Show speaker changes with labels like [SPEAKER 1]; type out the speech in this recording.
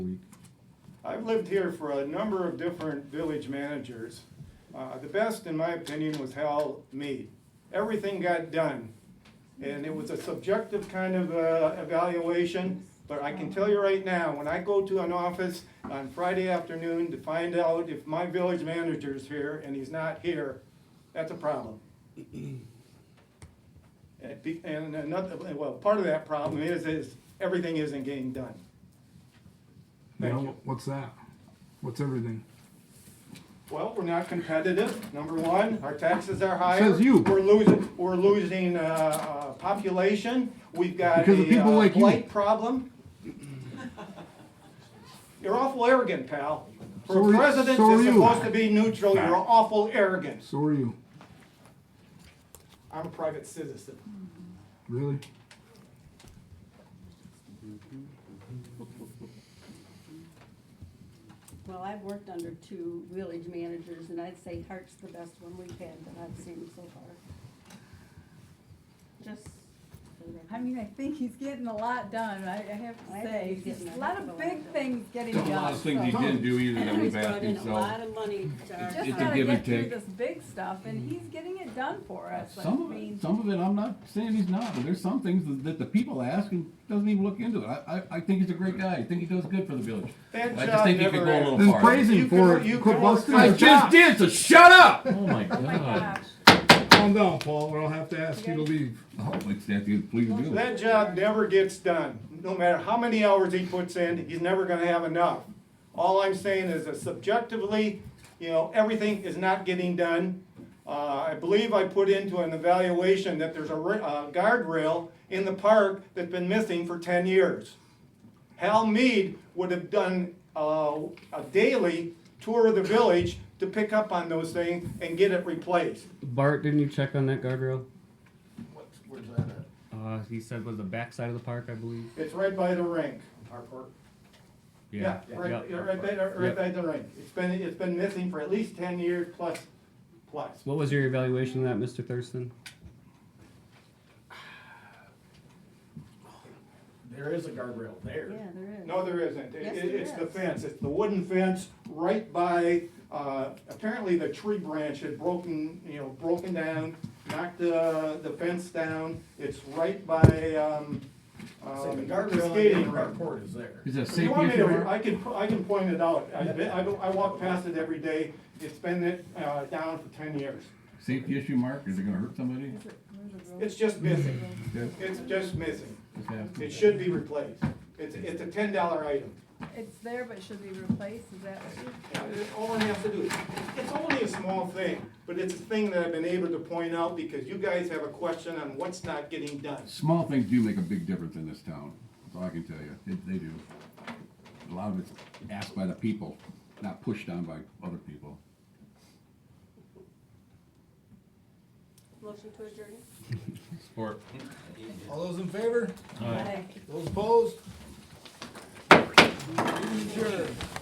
[SPEAKER 1] I've lived here for a number of different village managers. Uh, the best, in my opinion, was Hal Mead. Everything got done. And it was a subjective kind of, uh, evaluation, but I can tell you right now, when I go to an office on Friday afternoon to find out if my village manager's here and he's not here, that's a problem. And be- and another, well, part of that problem is, is everything isn't getting done. Thank
[SPEAKER 2] Well,
[SPEAKER 1] you.
[SPEAKER 2] what's that? What's everything?
[SPEAKER 1] Well, we're not competitive, number one, our taxes are higher.
[SPEAKER 2] Says you.
[SPEAKER 1] We're losing, we're losing, uh, uh, population, we've got
[SPEAKER 2] Because of
[SPEAKER 1] a
[SPEAKER 2] people
[SPEAKER 1] uh,
[SPEAKER 2] like you.
[SPEAKER 1] blight problem. You're awful arrogant, pal.
[SPEAKER 2] So
[SPEAKER 1] For
[SPEAKER 2] are
[SPEAKER 1] a
[SPEAKER 2] you-
[SPEAKER 1] president
[SPEAKER 2] so
[SPEAKER 1] that's
[SPEAKER 2] are you.
[SPEAKER 1] supposed to be neutral, you're awful arrogant.
[SPEAKER 2] So are you.
[SPEAKER 1] I'm a private citizen.
[SPEAKER 2] Really?
[SPEAKER 3] Well, I've worked under two village managers, and I'd say Hart's the best one we've had that I've seen so far. Just. for the record.
[SPEAKER 4] I mean, I think he's getting a lot done, I, I have
[SPEAKER 3] I think
[SPEAKER 4] to say,
[SPEAKER 3] he's
[SPEAKER 4] There's
[SPEAKER 3] getting
[SPEAKER 4] a
[SPEAKER 3] a
[SPEAKER 4] lot
[SPEAKER 3] heck of
[SPEAKER 4] of
[SPEAKER 3] a lot
[SPEAKER 4] big
[SPEAKER 3] done.
[SPEAKER 4] things getting
[SPEAKER 5] A
[SPEAKER 4] done.
[SPEAKER 5] lot of things he
[SPEAKER 4] so-
[SPEAKER 5] didn't do either that
[SPEAKER 3] He's
[SPEAKER 5] we've
[SPEAKER 3] brought
[SPEAKER 5] asked
[SPEAKER 3] in
[SPEAKER 5] him,
[SPEAKER 3] a lot
[SPEAKER 5] so.
[SPEAKER 3] of money to our
[SPEAKER 4] Just
[SPEAKER 5] It's a
[SPEAKER 4] gotta
[SPEAKER 5] give and
[SPEAKER 4] get through
[SPEAKER 5] take.
[SPEAKER 4] this big stuff, and he's getting it done for us, like, I
[SPEAKER 5] Some of
[SPEAKER 4] mean,
[SPEAKER 5] it, some of it, I'm not saying he's not, but there's some things that- that the people ask and doesn't even look into it. I, I, I think he's a great guy. I think he does good for the village.
[SPEAKER 1] That
[SPEAKER 5] I
[SPEAKER 1] job
[SPEAKER 5] just think he could
[SPEAKER 1] never
[SPEAKER 5] go a
[SPEAKER 1] ends.
[SPEAKER 5] little
[SPEAKER 2] Then
[SPEAKER 5] farther.
[SPEAKER 2] praise him
[SPEAKER 1] You
[SPEAKER 2] for
[SPEAKER 1] can-
[SPEAKER 2] it.
[SPEAKER 1] you can
[SPEAKER 2] Quit
[SPEAKER 1] work
[SPEAKER 2] busting
[SPEAKER 1] through
[SPEAKER 5] I
[SPEAKER 2] his
[SPEAKER 5] just
[SPEAKER 2] job.
[SPEAKER 5] did, so shut up! Oh
[SPEAKER 4] my
[SPEAKER 5] my
[SPEAKER 4] gosh.
[SPEAKER 5] god.
[SPEAKER 2] Calm down, Paul, or I'll have to ask you to leave.
[SPEAKER 5] Oh, it's that dude, please do.
[SPEAKER 1] That job never gets done. No matter how many hours he puts in, he's never gonna have enough. All I'm saying is that subjectively, you know, everything is not getting done. Uh, I believe I put into an evaluation that there's a ri- uh, guardrail in the park that's been missing for ten years. Hal Mead would have done uh, a daily tour of the village to pick up on those things and get it replaced.
[SPEAKER 6] Bart, didn't you check on that guardrail?
[SPEAKER 7] What's, where's that at?
[SPEAKER 6] Uh, he said was the back side of the park, I believe.
[SPEAKER 1] It's right by the rink.
[SPEAKER 7] Our park?
[SPEAKER 1] Yeah, right, yeah, right by, the- right
[SPEAKER 6] Yep.
[SPEAKER 1] by the ring. It's been, it's been missing for at least ten years plus, plus.
[SPEAKER 6] What was your evaluation of that, Mr. Thurston?
[SPEAKER 7] There is a guardrail there.
[SPEAKER 3] Yeah, there is.
[SPEAKER 1] No, there isn't. It-
[SPEAKER 3] Yes,
[SPEAKER 1] it-
[SPEAKER 3] there
[SPEAKER 1] It's the
[SPEAKER 3] is.
[SPEAKER 1] fence. It's the wooden fence right by, uh, apparently the tree branch had broken, you know, broken down, knocked the, the fence down. It's right by, um,
[SPEAKER 7] Say, the
[SPEAKER 1] um, the
[SPEAKER 7] guardrail
[SPEAKER 1] skating
[SPEAKER 7] on our
[SPEAKER 1] rink.
[SPEAKER 7] report is there.
[SPEAKER 5] Is that
[SPEAKER 1] If you
[SPEAKER 5] safety
[SPEAKER 1] want me
[SPEAKER 5] issue?
[SPEAKER 1] to, I
[SPEAKER 5] Mark?
[SPEAKER 1] can, I can point it out. I've been- I, don't- I walk past it every day. It's been, uh, down for ten years.
[SPEAKER 5] Safety issue, Mark? Is it gonna hurt somebody?
[SPEAKER 1] It's just missing.
[SPEAKER 5] Yeah.
[SPEAKER 1] It's just missing.
[SPEAKER 5] Just ask him.
[SPEAKER 1] It should be replaced. It's, it's a ten dollar item.
[SPEAKER 4] It's there, but should be replaced, is that what you?
[SPEAKER 1] Yeah, it- All I have to do, it's only a small thing, but it's a thing that I've been able to point out because you guys have a question on what's not getting done.
[SPEAKER 5] Small things do make a big difference in this town, that's all I can tell you, It- they do. A lot of it's asked by the people, not pushed on by other people.
[SPEAKER 3] Motion to adjourn?
[SPEAKER 8] All those in favor?
[SPEAKER 3] Aye.
[SPEAKER 8] Those opposed? Meeting adjourned.